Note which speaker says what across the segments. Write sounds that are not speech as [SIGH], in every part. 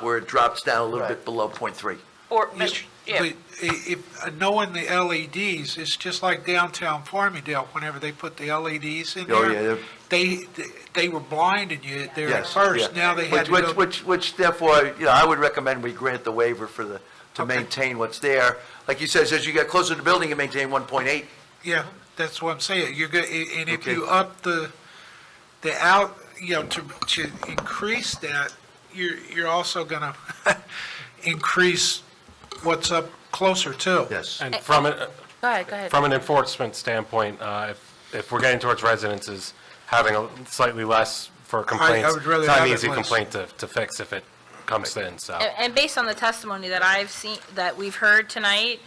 Speaker 1: where it drops down a little bit
Speaker 2: Right.
Speaker 1: below point three.
Speaker 3: Or,
Speaker 4: But
Speaker 3: yeah,
Speaker 4: i- if, uh, knowing the LEDs, it's just like downtown Farmingdale, whenever they put the LEDs in
Speaker 1: Oh, yeah,
Speaker 4: there,
Speaker 1: they're-
Speaker 4: they, they were blinding you there at
Speaker 1: Yes,
Speaker 4: first,
Speaker 1: yeah.
Speaker 4: now they had
Speaker 1: Which-
Speaker 4: to go.
Speaker 1: Which, which, which therefore, you know, I would recommend we grant the waiver for the, to
Speaker 4: Okay.
Speaker 1: maintain what's there. Like you said, as you get closer to the building, you maintain one point eight.
Speaker 4: Yeah, that's what I'm saying. You're going and if
Speaker 1: Okay.
Speaker 4: you up the, the out, you know, to, to increase that, you're, you're also gonna [LAUGHS] increase what's up closer too.
Speaker 1: Yes.
Speaker 5: And from, an- uh,
Speaker 3: go ahead, go ahead.
Speaker 5: from an enforcement standpoint, uh, if, if we're getting towards residences, having a slightly less for complaints,
Speaker 4: would rather
Speaker 5: it's not
Speaker 4: have
Speaker 5: an
Speaker 4: it
Speaker 5: easy
Speaker 4: less.
Speaker 5: complaint to, to fix if it comes in, so.
Speaker 3: And and based on the testimony that I've seen, that we've heard tonight,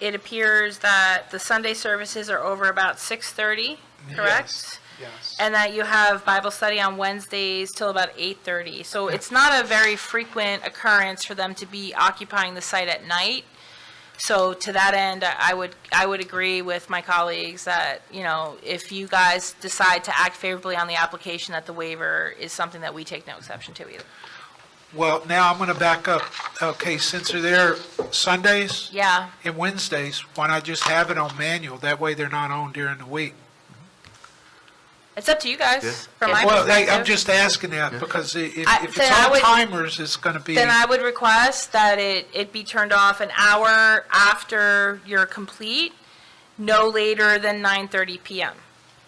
Speaker 3: it appears that the Sunday services are over about 6:30, correct?
Speaker 2: Yes.
Speaker 3: And that you have Bible study on Wednesdays till about 8:30. So it's not a very frequent occurrence for them to be occupying the site at night. So to that end, I I would, I would agree with my colleagues that, you know, if you guys decide to act favorably on the application, that the waiver is something that we take no exception to either.
Speaker 4: Well, now I'm gonna back up. Okay, since they're there Sundays
Speaker 3: Yeah,
Speaker 4: and Wednesdays, why not just have it on manual? That way they're not on during the week.
Speaker 3: It's up to you guys, from my
Speaker 4: Well, they-
Speaker 3: perspective.
Speaker 4: I'm just asking that because i- if,
Speaker 3: I-
Speaker 4: if
Speaker 3: then I
Speaker 4: it's on
Speaker 3: would-
Speaker 4: timers, it's gonna be.
Speaker 3: Then I would request that it, it be turned off an hour after you're complete, no later than 9:30 PM,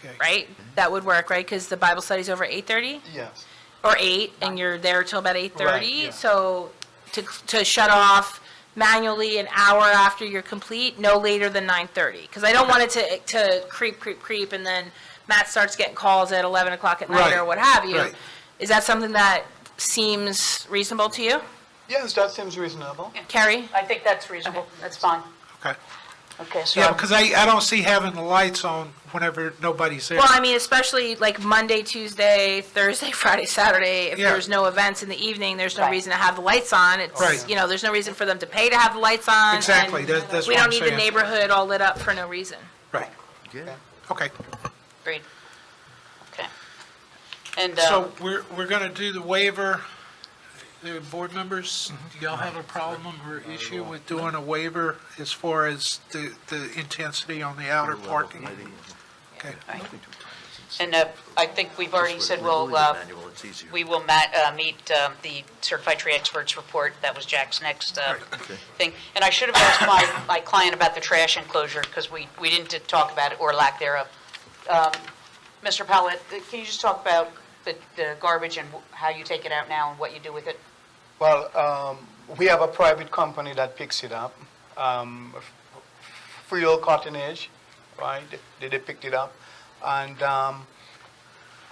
Speaker 4: okay.
Speaker 3: right? That would work, right? Because the Bible study's over 8:30
Speaker 2: Yes.
Speaker 3: or 8, and you're there till about 8:30.
Speaker 2: yeah.
Speaker 3: So to, to shut off manually an hour after you're complete, no later than 9:30. Because I don't want it to, to creep, creep, creep, and then Matt starts getting calls at 11 o'clock at night or
Speaker 4: Right,
Speaker 3: what have you.
Speaker 4: right.
Speaker 3: Is that something that seems reasonable to you?
Speaker 2: Yes, that seems reasonable.
Speaker 3: Carrie?
Speaker 6: I think that's reasonable, that's fine.
Speaker 4: Okay.
Speaker 6: Okay, so,
Speaker 4: Yeah, because I, I don't see having the lights on whenever nobody's there.
Speaker 3: Well, I mean, especially like Monday, Tuesday, Thursday, [LAUGHS] Friday, Saturday, if
Speaker 4: Yeah.
Speaker 3: there's no events in the evening, there's no
Speaker 6: Right.
Speaker 3: reason to have the lights on. It's,
Speaker 4: Right.
Speaker 3: you know, there's no reason for them to pay to have the lights on.
Speaker 4: Exactly,
Speaker 3: and
Speaker 4: that- that's
Speaker 3: We
Speaker 4: what
Speaker 3: don't
Speaker 4: I'm
Speaker 3: need the
Speaker 4: saying.
Speaker 3: neighborhood all lit up for no reason.
Speaker 4: Right,
Speaker 1: Yeah.
Speaker 4: okay.
Speaker 6: agreed. Okay. And, uh,
Speaker 4: So we're, we're going to do the waiver. The board members, do y'all have a problem or issue with doing a waiver as far as the, the intensity on the outer parking? Okay,
Speaker 6: and uh, I think we've already said we'll, uh, we will ma- uh, meet um, the certified tree experts report, that was Jack's next uh, thing. And I should have asked my, my client about the trash enclosure, because we, we didn't talk about it, or lack thereof. Um, Mr. Pellet, can you just talk about the the garbage and wh- how you take it out now and what you do with it?
Speaker 2: Well, um, we have a private company that picks it up. Um, F- Frio Cottonage, right? They, they picked it up. And, um,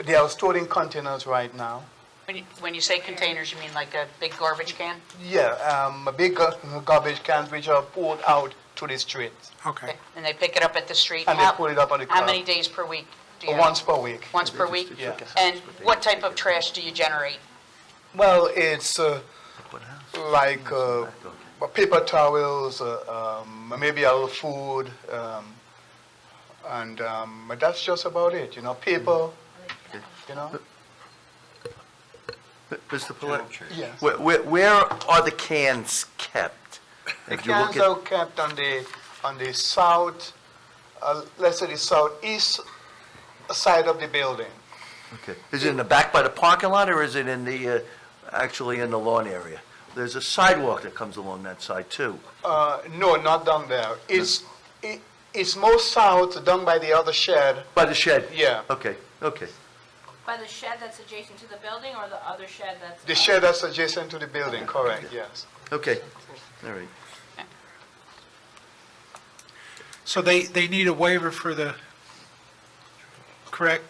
Speaker 2: they are stored in containers right now.
Speaker 6: When you, when you say containers, you mean like a big garbage can?
Speaker 2: Yeah, um, big gar- garbage cans which are poured out to the streets.
Speaker 4: okay.
Speaker 6: And they pick it up at the street?
Speaker 2: And they
Speaker 6: How-
Speaker 2: put it up on the
Speaker 6: How
Speaker 2: curb.
Speaker 6: many days per week do you have?
Speaker 2: Once per week.
Speaker 6: Once per week?
Speaker 2: Yeah.
Speaker 6: And what type of trash do you generate?
Speaker 2: Well, it's, uh, like uh, paper towels, uh, um, maybe a little food, um, and um, but that's just about it. You know, paper. You know.
Speaker 1: Mr. Palet?
Speaker 2: Yes.
Speaker 1: Where, where, where are the cans kept?
Speaker 2: The
Speaker 1: If you look
Speaker 2: cans
Speaker 1: at-
Speaker 2: are kept on the on the south, uh, let's say the southeast side of the building.
Speaker 1: Okay. Is it in the back by the parking lot, or is it in the, uh, actually in the lawn area? There's a sidewalk that comes along that side, too.
Speaker 2: Uh, no, not down there. It's it, it's more south, down by the other shed.
Speaker 1: By the shed?
Speaker 2: Yeah.
Speaker 1: Okay, okay.
Speaker 3: By the shed that's adjacent to the building or the other shed that's?
Speaker 2: The shed that's adjacent to the building. Correct. Yes.
Speaker 1: Okay, all right.
Speaker 4: So they, they need a waiver for the, correct?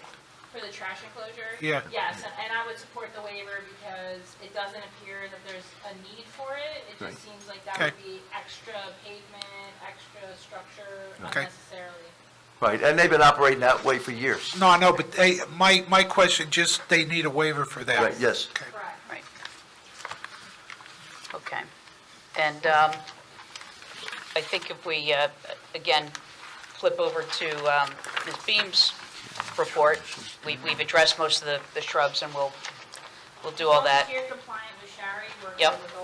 Speaker 3: For the trash enclosure?
Speaker 4: Yeah.
Speaker 3: Yes, and I would support the waiver because it doesn't appear that there's a need for it. It
Speaker 1: Right.
Speaker 3: just seems like that
Speaker 4: Okay.
Speaker 3: would be extra pavement, extra structure
Speaker 4: Okay.
Speaker 3: unnecessarily.
Speaker 1: Right, and they've been operating that way for years.
Speaker 4: No, I know, but they, my, my question, just they need a waiver for that.
Speaker 1: Right, yes.
Speaker 4: Okay.
Speaker 3: Correct.
Speaker 6: Right. Okay. And um, I think if we, uh, again, flip over to um, Ms. Beam's report, we- we've addressed most of the- the shrubs, and we'll, we'll do all that.
Speaker 3: Here compliant with Shari, we're
Speaker 6: Yep.
Speaker 3: gonna go